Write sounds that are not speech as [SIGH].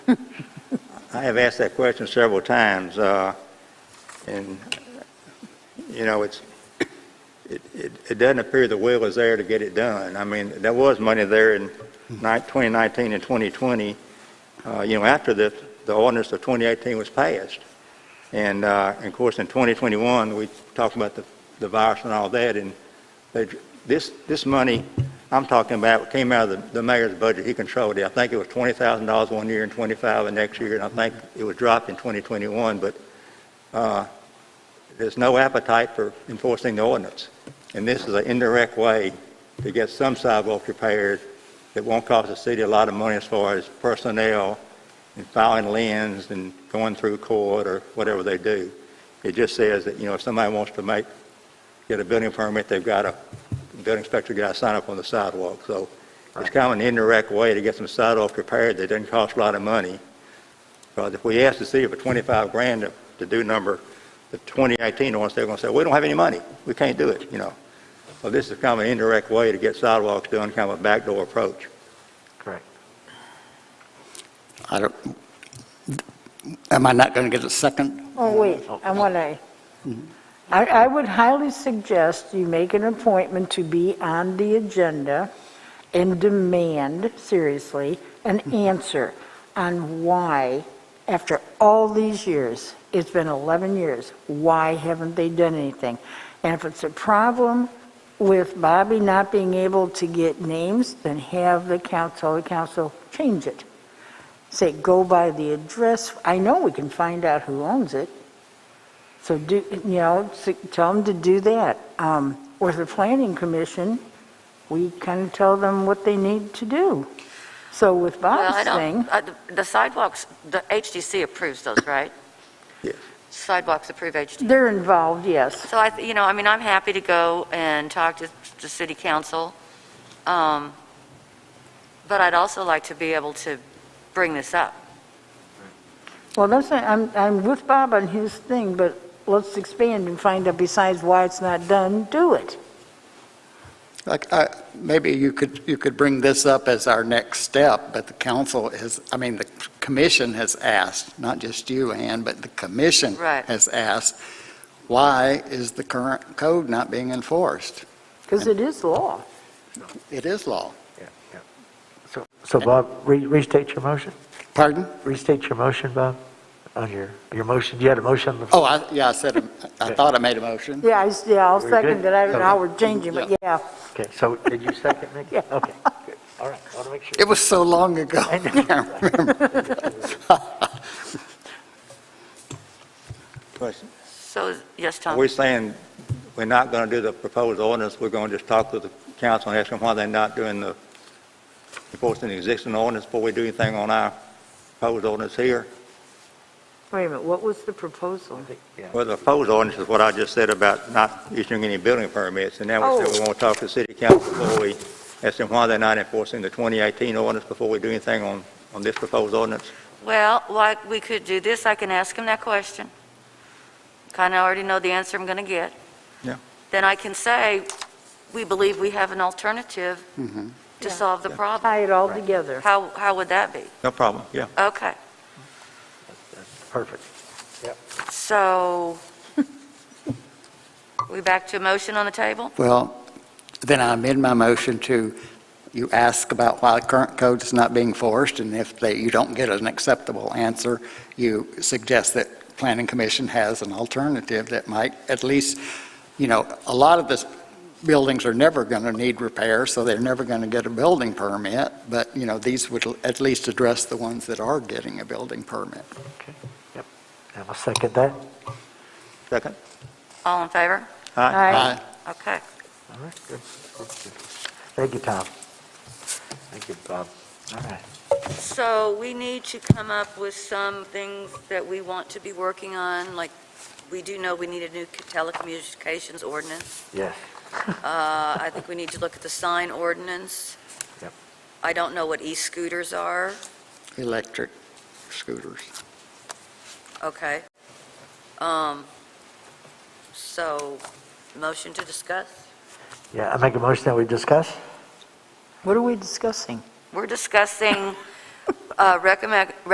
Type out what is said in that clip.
I have asked that question several times, uh, and, you know, it's, it, it it doesn't appear the will is there to get it done. I mean, there was money there in ni- 2019 and 2020, uh, you know, after the, the ordinance of 2018 was passed. And, uh, and of course, in 2021, we talked about the, the virus and all that, and they- this, this money I'm talking about came out of the, the mayor's budget, he controlled it. I think it was $20,000 one year and 25 the next year, and I think it was dropped in 2021, but uh, there's no appetite for enforcing the ordinance. And this is an indirect way to get some sidewalk repaired that won't cost the city a lot of money as far as personnel and filing liens and going through court or whatever they do. It just says that, you know, if somebody wants to make, get a building permit, they've got a, building inspector got to sign up on the sidewalk. So it's kind of an indirect way to get some sidewalk repaired that doesn't cost a lot of money. Because if we ask the city for 25 grand to- to do number, the 2018 ones, they're going to say, we don't have any money, we can't do it, you know. So this is kind of an indirect way to get sidewalks done, kind of a backdoor approach. I don't, am I not going to get a second? Oh, wait, I want to, I, I would highly suggest you make an appointment to be on the agenda and demand, seriously, an answer on why, after all these years, it's been 11 years, why haven't they done anything? And if it's a problem with Bobby not being able to get names, then have the council, the council change it say, go by the address, I know we can find out who owns it. So do, you know, s- tell them to do that. Um, Or the planning commission, we kind of tell them what they need to do. So with Well, I Bob's don't, thing, uh, the- the sidewalks, the HDC approves those, right? Yes. Sidewalks approve HDC. they're involved, yes. So I, th- you know, I mean, I'm happy to go and talk to the city council. um, But I'd also like to be able to bring this up. Well, that's, not- I'm, I'm with Bob on his thing, but let's expand and find out besides why it's not done, do it. Like, I- maybe you could, you could bring this up as our next step, but the council has, I mean, the commission has asked, not just you, Ann, but the commission Right. has asked, why is the current code not being enforced? Because it is law. It is law. So, so Bob, re- restate your motion. Pardon? Restate your motion, Bob, on your, your motion. You had a motion on the Oh, floor. I, yeah, I said, I thought I made a motion. Yeah, I, s- yeah, I'll Very good. second that, I don't know how we're changing, but yeah. Okay, so did you second, Nick? Yeah. Okay, good. All right, I want to make sure. It was so long [LAUGHS] ago. I know. Question. So, yes, Are Tom? we saying we're not going to do the proposed ordinance, we're going to just talk to the council and ask them why they're not doing the, enforcing the existing ordinance before we do anything on our proposed ordinance here? Wait a minute, what was the proposal? Well, the proposed ordinance is what I just said about not issuing any building permits, and now we said we want to talk to the city council before we ask them why they're not enforcing the 2018 ordinance before we do anything on, on this proposed ordinance. Well, like, we could do this, I can ask him that question. Kind of already know the answer I'm going to get. Yeah. Then I can say, we believe we have an alternative Mhm. to Yeah. solve the problem. Tie it all together. How, how would that be? No problem, yeah. Okay, Perfect. so, we back to a motion on the table? Well, then I amend my motion to, you ask about why the current code is not being forced, and if they, you don't get an acceptable answer, you suggest that Planning Commission has an alternative that might at least, you know, a lot of the buildings are never going to need repair, so they're never going to get a building permit, but, you know, these would at least address the ones that are getting a building permit. And I'll second that. Second? All in favor? Aye. Aye. Okay. All right, good. Thank you, Tom. Thank you, Bob. All right. So we need to come up with some things that we want to be working on, like, we do know we need a new telecommunications ordinance. Yes. Uh, I think we need to look at the sign ordinance. Yep. I don't know what e-scooters are, Electric scooters. okay. Um, So, motion to discuss? Yeah, I make a motion that we discuss? What are we discussing? We're discussing uh, recommend,